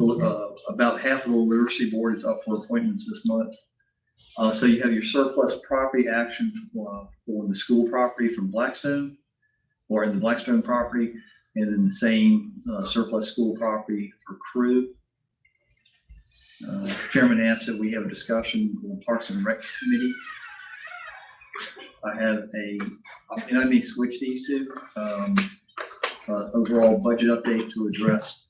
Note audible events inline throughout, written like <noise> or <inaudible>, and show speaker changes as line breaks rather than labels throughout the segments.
uh, about half of the literacy board is up for appointments this month. Uh, so you have your surplus property action uh, for the school property from Blackstone or in the Blackstone property, and then the same uh, surplus school property for crew. Uh, Chairman asked that we have a discussion on Parks and Recs Committee. I have a, and I may switch these two, um, uh, overall budget update to address,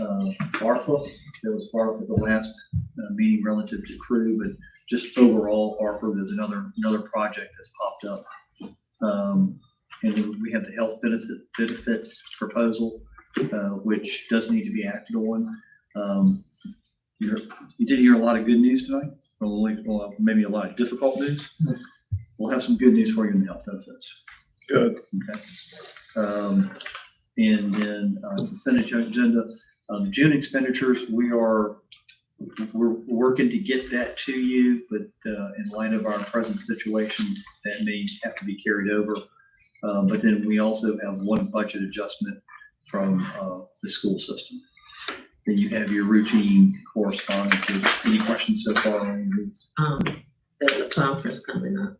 uh, ARPA. That was part of the last, uh, meeting relative to crew, but just overall ARPA, there's another, another project that's popped up. Um, and then we have the health benefit, benefit proposal, uh, which does need to be acted on. Um, you're, you did hear a lot of good news tonight, or like, well, maybe a lot of difficult news. We'll have some good news for you in the health benefits.
Good.
Okay. Um, and then, uh, consent agenda, um, June expenditures, we are, we're working to get that to you, but, uh, in light of our present situation, that may have to be carried over. Uh, but then we also have one budget adjustment from, uh, the school system. Then you have your routine correspondences. Any questions so far on these?
um, there's a conference coming up.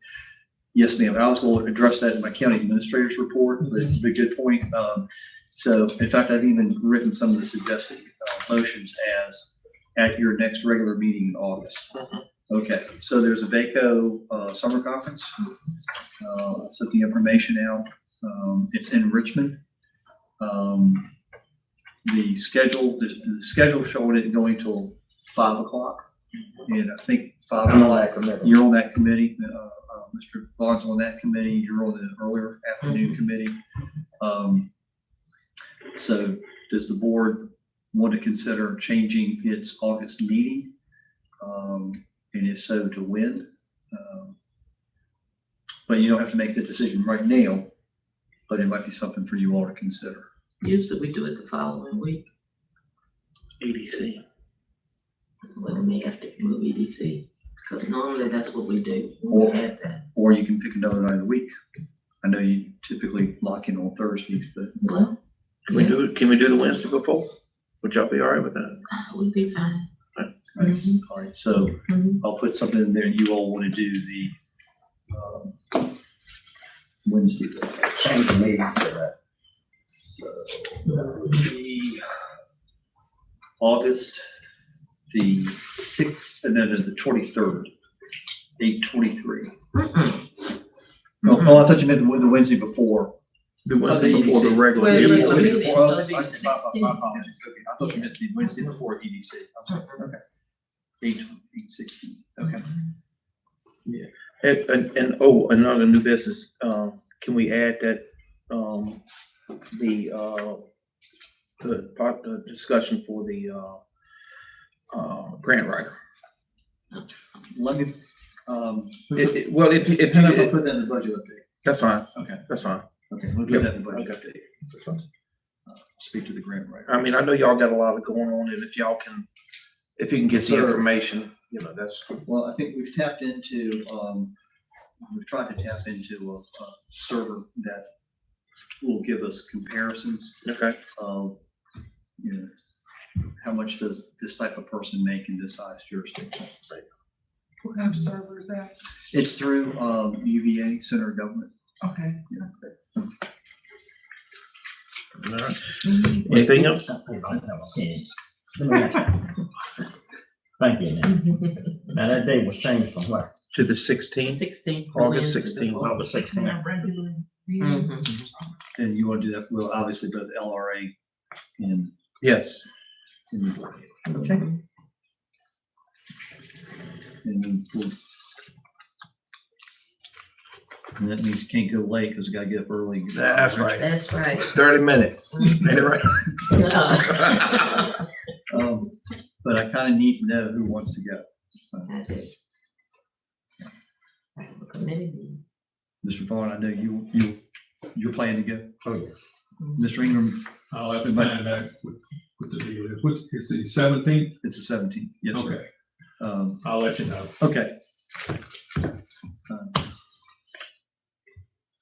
Yes, ma'am. I was going to address that in my county administrator's report, but it's a good point. Um, so in fact, I've even written some of the suggested uh, motions as at your next regular meeting in August.
Mhm.
Okay, so there's a VACO, uh, summer conference. Uh, I'll set the information out. Um, it's in Richmond. Um, the schedule, the, the schedule showed it going till five o'clock. And I think five
I'm
o'clock
like, I'm never-
you're on that committee, uh, uh, Mr. Bond's on that committee, you're on the earlier afternoon committee. Um, So does the board want to consider changing its August meeting? Um, And if so, to when? Um, But you don't have to make the decision right now, but it might be something for you all to consider.
Usually we do it the following week,
EDC.
when we have to move E EDC, because normally that's what we do.
Or-
We have that.
Or you can pick another night of the week. I know you typically lock in on Thursdays, but
Well,
Can we
yeah,
do it, can we do the Wednesday before? Would y'all be all right with that?
we'd be fine.
Nice.
Mhm.
All right, so
Mhm.
I'll put something in there. You all want to do the um, Wednesday.
Change the meeting for that. So,
The August, the sixth, and then the twenty-third, eight twenty-three.
Mm-mm.
Oh, oh, I thought you meant the the Wednesday before.
The Wednesday
Oh, the
before the
EDC.
regular.
Wait,
meeting.
wait,
Yeah,
wait.
Wednesday before-
so it'd be
I-
the
my- my-
16th.
My apologies. Okay, I thought you meant the Wednesday before EDC. I'm sorry. Okay. Eight, eight sixteen, okay.
And, and, and, oh, another new business, um, can we add that, um, the, uh, the part, the discussion for the, uh, uh, grant writer?
Let me, um,
It, it, well, if, you- if,
and I'll
you-
put that in the budget update.
that's fine,
Okay,
that's fine.
okay, we'll do that in the budget
Okay.
update.
That's fine.
Speak to the grant writer.
I mean, I know y'all got a lot of going on, and if y'all can, if you can get the
Sure.
information, you know, that's,
Well, I think we've tapped into, um, we've tried to tap into a, a server that will give us comparisons
okay,
of, you know, how much does this type of person make in this size jurisdiction?
What kind of server is that?
It's through, um, UVA, Center of Government.
Okay.
you know.
All right. anything else?
Thank you. Now, Now, that day was changed from what?
To the sixteenth,
Sixteen.
<laughs> August 16th.
August sixteenth.
Mhm.
And you want to do that, well, obviously both LRA and,
yes.
and UVA. Okay. And then we'll- and that means can't go late because we gotta get up early. and get-
That's right.
That's right.
<laughs> Thirty minutes. Ain't it right?
I
Um, But I kind of need to know who wants to go.
do. I have a committee meeting.
Mr. Vaughn, I know you, you, you're planning to go.
Oh, yes.
Mr. Ingram,
I'll have to find out what, what the deal is. What, it's the seventeenth?
it's the seventeenth. Yes, sir.
Okay,
Um,
I'll let you know.
okay.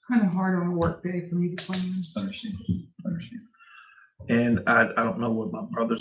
Kind of hard on a work day for me to plan.
Understand, understand.
And I, I don't know what my brother's